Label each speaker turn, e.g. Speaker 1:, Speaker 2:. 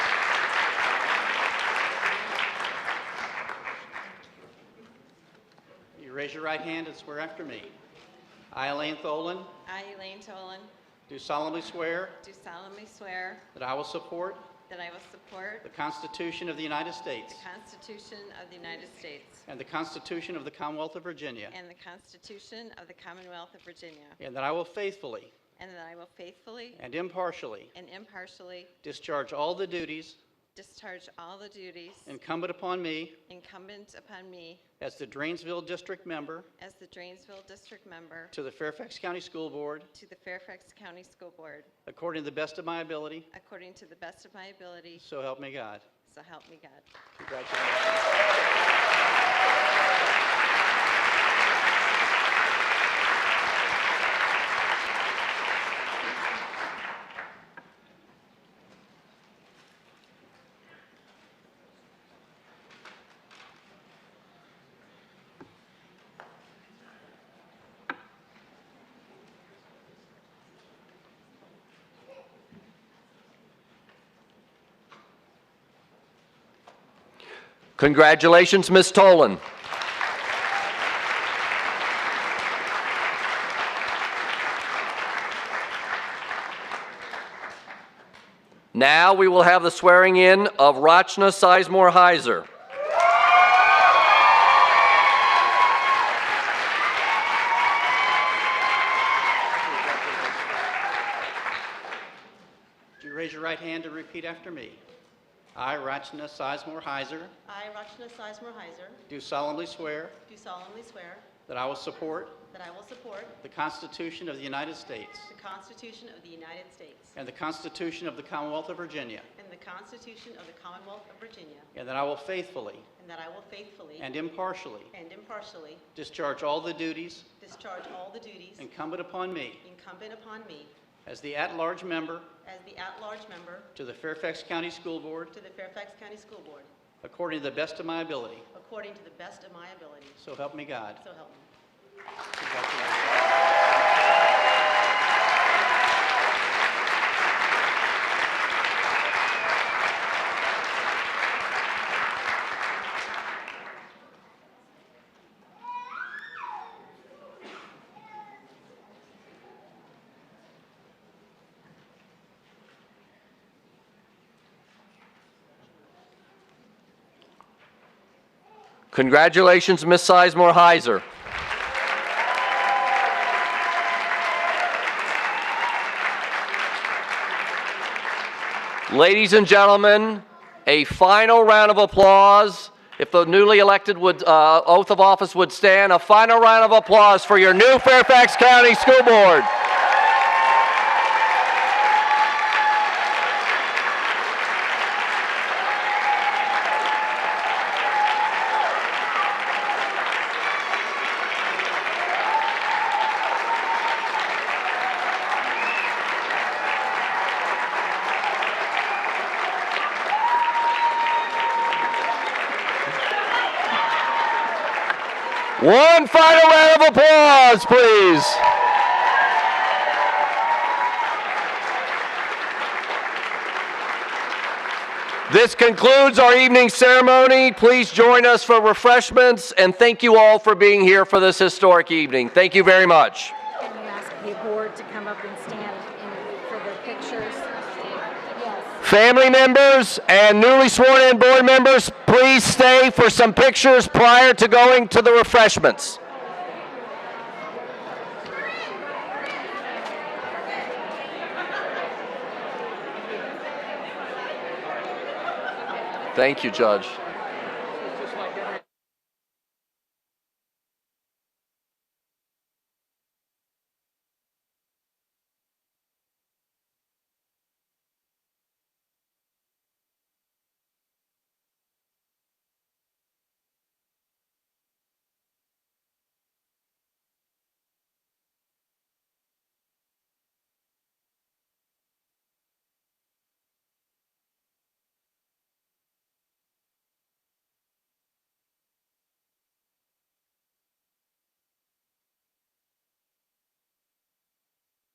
Speaker 1: Raise your right hand and swear after me. I, Elaine Tholen,
Speaker 2: I, Elaine Tolan,
Speaker 1: do solemnly swear
Speaker 2: do solemnly swear
Speaker 1: that I will support
Speaker 2: that I will support
Speaker 1: the Constitution of the United States
Speaker 2: the Constitution of the United States
Speaker 1: and the Constitution of the Commonwealth of Virginia,
Speaker 2: and the Constitution of the Commonwealth of Virginia,
Speaker 1: and that I will faithfully
Speaker 2: and that I will faithfully
Speaker 1: and impartially
Speaker 2: and impartially
Speaker 1: discharge all the duties
Speaker 2: discharge all the duties
Speaker 1: incumbent upon me
Speaker 2: incumbent upon me
Speaker 1: as the Drainsville District Member
Speaker 2: as the Drainsville District Member
Speaker 1: to the Fairfax County School Board
Speaker 2: to the Fairfax County School Board,
Speaker 1: according to the best of my ability,
Speaker 2: according to the best of my ability,
Speaker 1: so help me God.
Speaker 2: so help me God.
Speaker 1: Congratulations.
Speaker 3: Congratulations, Ms. Tolan. Now we will have the swearing in of Rachna Sizemore Heiser.
Speaker 1: Would you raise your right hand and repeat after me? I, Rachna Sizemore Heiser,
Speaker 4: I, Rachna Sizemore Heiser,
Speaker 1: do solemnly swear
Speaker 4: do solemnly swear
Speaker 1: that I will support
Speaker 4: that I will support
Speaker 1: the Constitution of the United States
Speaker 4: the Constitution of the United States
Speaker 1: and the Constitution of the Commonwealth of Virginia,
Speaker 4: and the Constitution of the Commonwealth of Virginia,
Speaker 1: and that I will faithfully
Speaker 4: and that I will faithfully
Speaker 1: and impartially
Speaker 4: and impartially
Speaker 1: discharge all the duties
Speaker 4: discharge all the duties
Speaker 1: incumbent upon me
Speaker 4: incumbent upon me
Speaker 1: as the at-large member
Speaker 4: as the at-large member
Speaker 1: to the Fairfax County School Board
Speaker 4: to the Fairfax County School Board,
Speaker 1: according to the best of my ability,
Speaker 4: according to the best of my ability,
Speaker 1: so help me God.
Speaker 4: so help me.
Speaker 3: Congratulations, Ms. Sizemore Heiser. Ladies and gentlemen, a final round of applause. If the newly elected would, uh, oath of office would stand, a final round of applause for your new Fairfax County School Board. One final round of applause, please. This concludes our evening ceremony. Please join us for refreshments, and thank you all for being here for this historic evening. Thank you very much.
Speaker 5: Can you ask the board to come up and stand in- for the pictures? Yes.
Speaker 3: Family members and newly sworn in board members, please stay for some pictures prior to going to the refreshments. Thank you, Judge.